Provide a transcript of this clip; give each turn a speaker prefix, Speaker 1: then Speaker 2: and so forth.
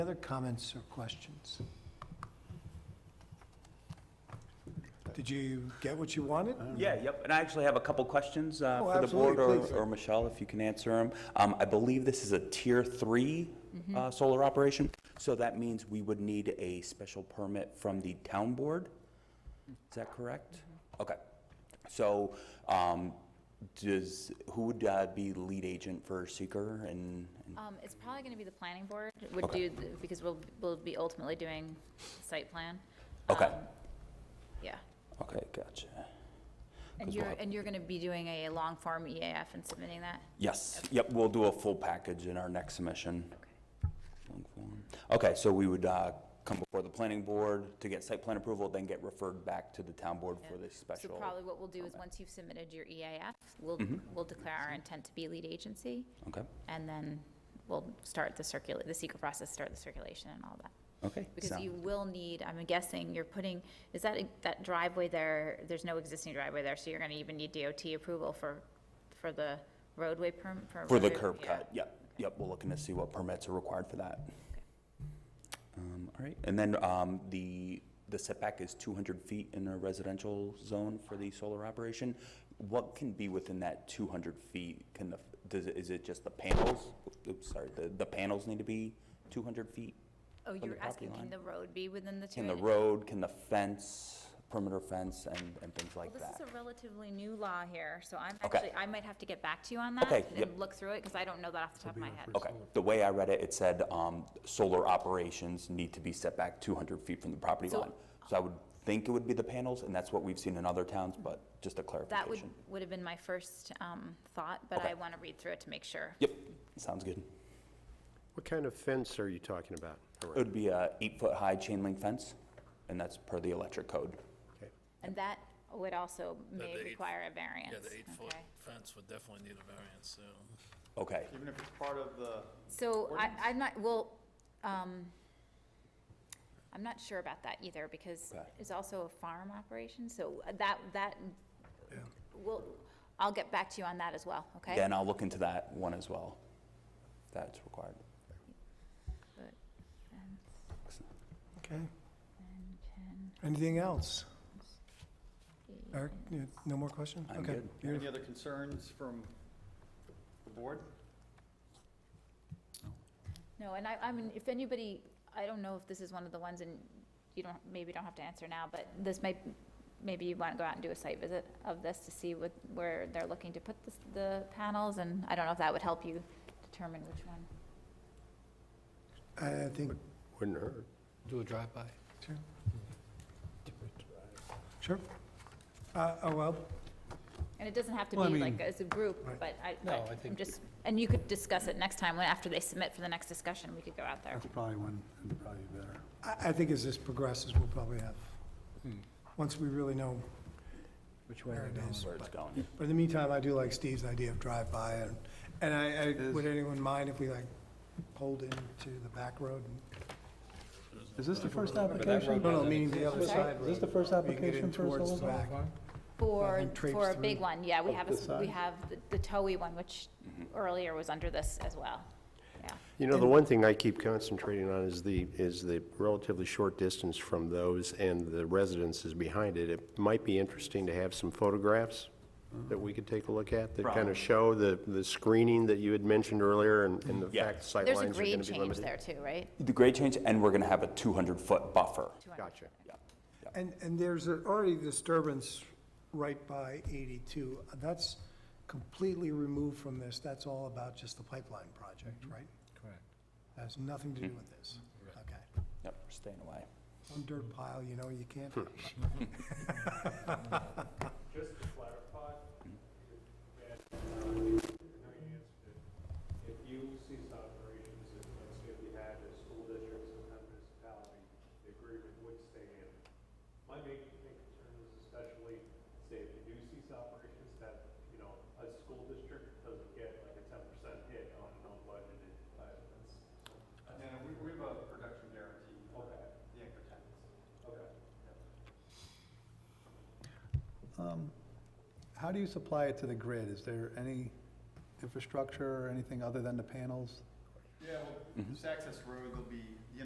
Speaker 1: Other comments or questions? Did you get what you wanted?
Speaker 2: Yeah, yep, and I actually have a couple questions uh,
Speaker 1: Oh,
Speaker 2: for the board,
Speaker 1: absolutely,
Speaker 2: or
Speaker 1: please.
Speaker 2: or Michelle, if you can answer them. I believe this is a Tier 3 uh, solar operation, so that means we would need a special permit from the town board? Is that correct? Okay, so um, does, who would uh, be lead agent for seeker and? and-
Speaker 3: Um, it's probably gonna be the planning board would
Speaker 2: Okay.
Speaker 3: do, the- because we'll, we'll be ultimately doing site plan.
Speaker 2: Okay.
Speaker 3: Um, Yeah,
Speaker 2: Okay, gotcha.
Speaker 3: and
Speaker 2: 'Cause we'll
Speaker 3: you're,
Speaker 2: have-
Speaker 3: and you're gonna be doing a long form EAF and submitting that?
Speaker 2: Yes, yep, we'll do a full package in our next submission.
Speaker 3: Okay.
Speaker 2: Long form. Okay, so we would uh, come before the planning board to get site plan approval, then get referred back to the town board for the
Speaker 3: So
Speaker 2: special. Mm-hmm.
Speaker 3: probably what we'll do is, once you've submitted your EAF, we'll, we'll declare our intent to be lead agency,
Speaker 2: Okay,
Speaker 3: and then we'll start the circula, the secret process, start the circulation and all that.
Speaker 2: okay.
Speaker 3: Because
Speaker 2: sound-
Speaker 3: you will need, I'm guessing, you're putting, is that, that driveway there, there's no existing driveway there, so you're gonna even need DOT approval for, for the roadway perm, for.
Speaker 2: For the
Speaker 3: roadway-
Speaker 2: curb
Speaker 3: yeah.
Speaker 2: cut, yep, yep, we're looking to see what permits are required for that.
Speaker 3: Okay.
Speaker 2: Um, All right, and then um, the, the setback is 200 feet in a residential zone for the solar operation. What can be within that 200 feet? Can the, does, it- is it just the panels? Oops, sorry, the, the panels need to be 200 feet?
Speaker 3: Oh,
Speaker 2: the
Speaker 3: you're
Speaker 2: property
Speaker 3: asking,
Speaker 2: line.
Speaker 3: can the road be within the two?
Speaker 2: Can the road, can the fence, perimeter fence, and, and things
Speaker 3: Well,
Speaker 2: like
Speaker 3: this
Speaker 2: that?
Speaker 3: is a relatively new law here, so I'm
Speaker 2: Okay.
Speaker 3: actually, I might have to get back to you on that.
Speaker 2: Okay, yep.
Speaker 3: And look through it, because I don't know that off the top of my head.
Speaker 2: Okay, the way I read it, it said, um, solar operations need to be set back two hundred feet from the property
Speaker 3: So-
Speaker 2: line. So I would think it would be the panels, and that's what we've seen in other towns, but just a
Speaker 3: That would,
Speaker 2: clarification.
Speaker 3: would have been my first, um, thought, but
Speaker 2: Okay.
Speaker 3: I wanna read through it to make sure.
Speaker 2: Yep, sounds good.
Speaker 4: What kind of fence are you talking about?
Speaker 2: It would be a eight-foot-high chain link fence, and that's per the electric code.
Speaker 4: Okay.
Speaker 3: And that would also may
Speaker 5: the eight-
Speaker 3: require a variance.
Speaker 5: Yeah, the eight-foot
Speaker 3: okay?
Speaker 5: fence would definitely need a variance, so.
Speaker 2: Okay,
Speaker 6: Even if it's part of the,
Speaker 3: So I, I'm not, well, um, I'm not sure about that either, because
Speaker 2: Okay.
Speaker 3: it's also a farm operation, so uh, that, that, well, I'll get back to you on that as well, okay?
Speaker 2: then I'll look into that one as well. if That's required.
Speaker 3: But-
Speaker 1: Okay,
Speaker 3: and can
Speaker 1: anything else? Eric,
Speaker 3: be-
Speaker 1: you- no more questions?
Speaker 2: I'm
Speaker 1: Okay,
Speaker 2: good.
Speaker 1: beautiful.
Speaker 6: any other concerns from the board?
Speaker 3: No, and I, I mean, if anybody, I don't know if this is one of the ones, and you don't, maybe don't have to answer now, but this might, maybe you want to go out and do a site visit of this to see what, where they're looking to put the, the panels, and I don't know if that would help you determine which one.
Speaker 1: I think,
Speaker 4: Wouldn't hurt.
Speaker 7: Do a drive-by.
Speaker 1: sure. Sure. Uh, Oh, well,
Speaker 3: And it doesn't have to
Speaker 7: Well, I
Speaker 3: be like
Speaker 7: mean-
Speaker 3: as a group,
Speaker 1: Right.
Speaker 3: but I,
Speaker 7: No, I
Speaker 3: but I'm
Speaker 7: think-
Speaker 3: just, and you could discuss it next time, when, after they submit for the next discussion, we could go out there.
Speaker 7: That's probably one, that'd probably be better.
Speaker 1: I, I think as this progresses, we'll probably have, once we really know
Speaker 7: Which
Speaker 1: where it is.
Speaker 2: Where it's going.
Speaker 1: But in the meantime, I do like Steve's idea of drive-by, and, and I, I, would anyone mind if we like pulled into the back road?
Speaker 8: Is this the first
Speaker 1: No,
Speaker 8: application?
Speaker 1: no, meaning the other
Speaker 3: I'm sorry?
Speaker 1: side road.
Speaker 8: Is this the first
Speaker 1: where you can get in
Speaker 8: application for a
Speaker 1: towards
Speaker 8: solar
Speaker 1: the
Speaker 8: farm?
Speaker 1: back.
Speaker 3: For,
Speaker 1: and traipse
Speaker 3: for a big
Speaker 1: through
Speaker 3: one, yeah, we
Speaker 7: Oh,
Speaker 8: up
Speaker 3: have, a
Speaker 8: the
Speaker 3: s- we
Speaker 8: side.
Speaker 3: have the- the TOE one, which
Speaker 4: Mm-hmm.
Speaker 3: earlier was under this as well, yeah.
Speaker 4: You know, the one thing I keep concentrating on is the, is the relatively short distance from those and the residences behind it. It might be interesting to have some photographs that we could take a look at that kind of show the, the screening that you had mentioned earlier and, and the
Speaker 2: Yeah.
Speaker 4: fact sightlines are
Speaker 3: There's a
Speaker 4: going to be
Speaker 3: grade
Speaker 4: limited.
Speaker 3: change there too, right?
Speaker 2: The grade change, and we're gonna have a two hundred-foot buffer.
Speaker 4: Gotcha.
Speaker 2: Yeah.
Speaker 1: And, and there's a- already disturbance right by 82. That's completely removed from this. That's all about just the pipeline project, right?
Speaker 8: Correct.
Speaker 1: That has nothing to do with this. Okay.
Speaker 2: Yep, we're staying away.
Speaker 1: Some dirt pile, you know, you can't.
Speaker 9: Just to clarify, that, uh, I know you answered it, if you cease operations, if, let's say, we had a school district, some kind of municipality, the agreement would stay in. My main main concern is especially, say, if you do cease operations, that, you know, a school district doesn't get like a ten percent hit on an unbudgeted item.
Speaker 6: Yeah,
Speaker 9: That's-
Speaker 6: Uh, we, we have a production guarantee. Okay. The anchor tenants.
Speaker 9: Okay.
Speaker 1: Um,
Speaker 8: How do you supply it to the grid? Is there any infrastructure or anything other than the panels?
Speaker 6: Yeah, well, This access road, there'll be, the